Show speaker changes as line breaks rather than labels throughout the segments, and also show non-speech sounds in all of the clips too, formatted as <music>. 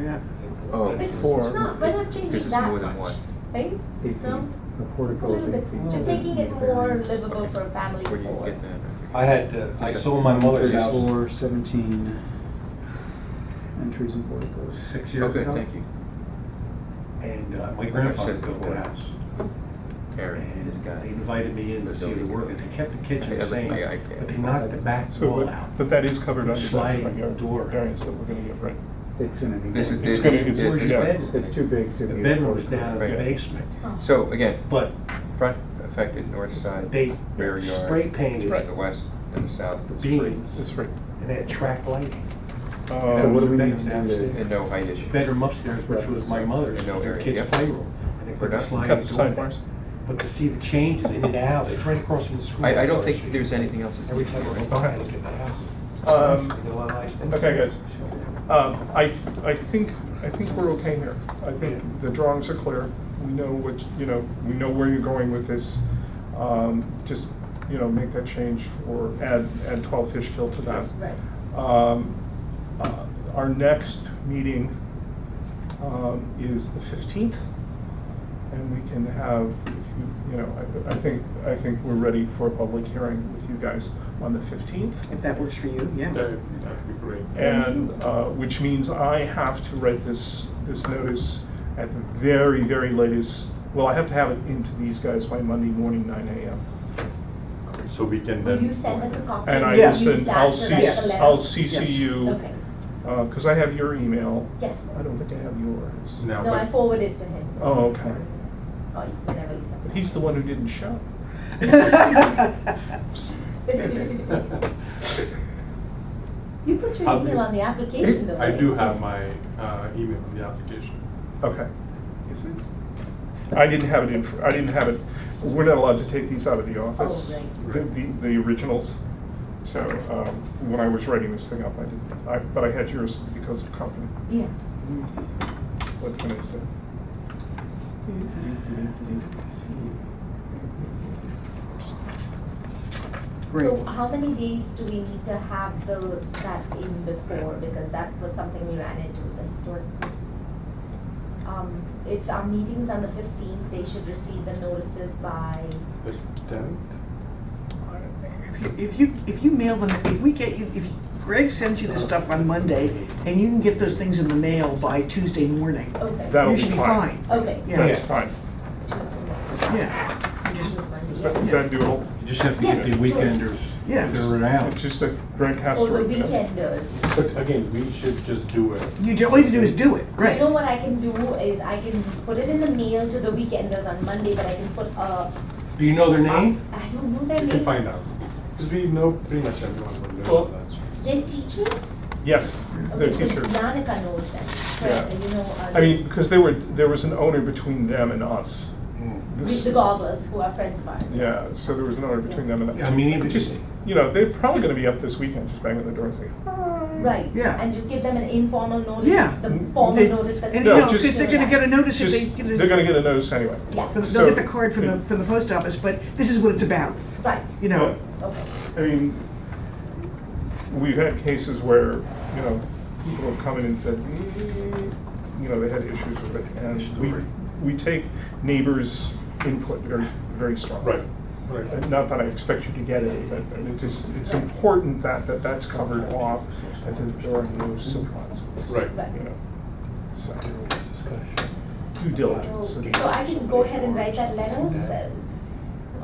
Yeah.
Oh,
It's
four.
it's not, we're not
Because
changing
it's more
that
than
much,
one.
right?
Eight feet.
No?
The
It's a
portico is
little
eight
bit,
feet.
just making it more livable for a family
Where do you
of four.
get that?
I had, uh, I sold my mother's house.
Thirty-four, seventeen entries and porticos.
Six years
Okay,
ago.
thank you.
And uh, my
Like I
grandfather
said
built
before,
the house.
Aaron, this
And
guy.
they invited me in to
The
see the
building
work, and
guy.
they kept the kitchen
I
the
have it in
same,
my iPad.
but they knocked the back
So,
wall
but,
out.
but that is covered under that
Sliding
front yard
door.
variance that we're gonna get, right?
It's in an.
This is
It's
big.
gonna-
This
it's-
is
Where's
this
your
one.
bedroom?
It's too big to
The
be. a
bedroom was
portico.
down in the
Right.
basement,
Oh.
So again,
but
front affected north side,
they
rear yard.
spray painted
to The
the
west and the south. is free.
beams
That's right.
and had track lighting.
So
Um,
what do we need
Bedroom
to do
downstairs.
to?
And no height issue.
Bedroom upstairs, which was my mother's,
No
their
area,
kids'
yep.
playroom. And they
We're
put
done.
the
Cut
Cut
sliding
the
door back.
sidebars.
But to see the changes in and out, it's right across from the school.
I, I don't think there's anything else that's
Every time I go
needed.
by, I look at the house.
Um,
You know, I like-
okay, guys. Um, I, I think, I think we're okay here. I think the drawings are clear. We know what, you know, we know where you're going with this. Um, Just, you know, make that change or add, add 12 Fishkill to that.
Right.
Um, uh, Our next meeting um, is the 15th, and we can have, if you you know, I- I think, I think we're ready for a public hearing with you guys on the 15th.
If that works for you, yeah.
that'd be great.
And, uh, which means I have to write this, this notice at the very, very latest, well, I have to have it into these guys by Monday morning, 9 AM.
So we can
Will
then.
you send us a copy?
And I
We'll
will
use
send,
that
I'll
so
CC,
that's
Yes.
the letter.
I'll CC you,
Okay,
because I have your email.
yes.
I don't think I have yours.
Now,
No, I
but-
forwarded it to him.
Oh, okay.
Or you- whenever you send it.
But he's
<laughs>
the one who didn't show.
<laughs>
You put your
<laughs>
I'll
email
do-
on the application though,
<laughs> I
right?
do have my uh, email in the application.
Okay. Is it? I didn't have it in, I didn't have it, we're not allowed to take these out of the office.
Oh,
The,
right.
the- the originals. So, um, when I was writing this thing up, I didn't, I, but I had yours because of company.
Yeah.
What can I say?
Great.
So how many days do we need to have the, that in before, because that was something we ran into with the historic. Um, if our meeting's on the fifteenth, they should receive the notices by,
The tenth?
If you, if you mail them, if we get you, if Greg sends you the stuff on Monday, and you can get those things in the mail by Tuesday morning,
okay.
That'll
you
be
should be
fine.
fine.
Okay.
Yeah.
That's fine.
Yeah. You just-
Is that, is that doable?
You just have to get the
Yes.
weekenders
Yeah.
figured out.
It's just like Greg has to
Or Oh, the
write that.
weekenders.
But again, we should just do it.
You, ju- all you have to do is do it,
So You know
right?
what I can do is I can put it in the mail to the weekenders on Monday, but I can put a,
Do you know their name?
I don't know their
You can
name.
find out, because we know pretty much everyone will
Well-
know that.
They're teachers?
Yes, the
Okay, so
teacher.
Danica knows them,
Yeah.
correct, you know. uh,
I mean, because they were, there was an owner between them and us.
With
This
the
is-
gobblers who are friends of ours.
Yeah, so there was an owner between them and
Yeah, I
us.
mean, even
Just, you know, they're probably gonna be up this weekend, just banging the door and saying,
Right.
Yeah.
And just give them an informal notice.
Yeah.
The formal
They-
notice that.
And,
No,
you know,
just-
because they're gonna get a notice if they.
Just- They're gonna get a notice anyway.
Yeah,
They'll they'll
so-
get the card from the, from the post office, but this is what it's about,
right,
you know?
okay.
I mean, we've had cases where, you know, people have come in and said, "Mm," you know, they had issues with it. And we, we take neighbors' input very, very strongly.
Right, right.
And Not that I expect you to get it, but but it just, it's important that, that that's covered off, that there are no surprises.
Right.
You know, so, due
So
diligence.
so I can go ahead and write that letter,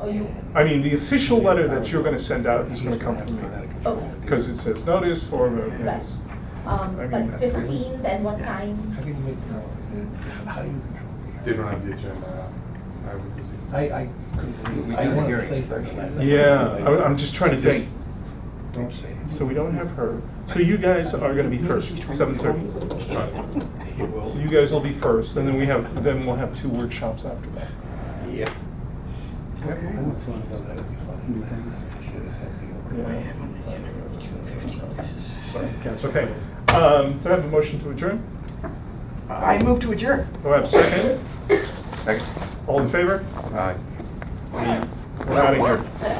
uh, or you, um,
I mean, the official letter that you're gonna send out is gonna come from me,
Oh.
okay,
because it says notice for,
right.
notice.
Um,
I mean,
but fifteenth and what time?
How do you make, how do you control?
They don't have the agenda. I would be-
I, I couldn't
We
believe,
do
I
the
wanted to
hearings
say
first.
something. I-
Yeah, I- I'm just trying to
Just-
think,
Don't say it.
so we don't have her, so you guys are gonna be first, seven thirty.
Right.
He will.
So you guys will be first, and then we have, then we'll have two workshops after that.
Yeah.
Okay.
I want someone to know that would be
Hmm,
funny.
thanks.
Should have said the old-
Yeah.
This is-
Sorry, okay. Um, do I have a motion to adjourn?
I move to adjourn.
Do I have a second?
Second? Uh,
All in favor?
Aye.
We're out of here.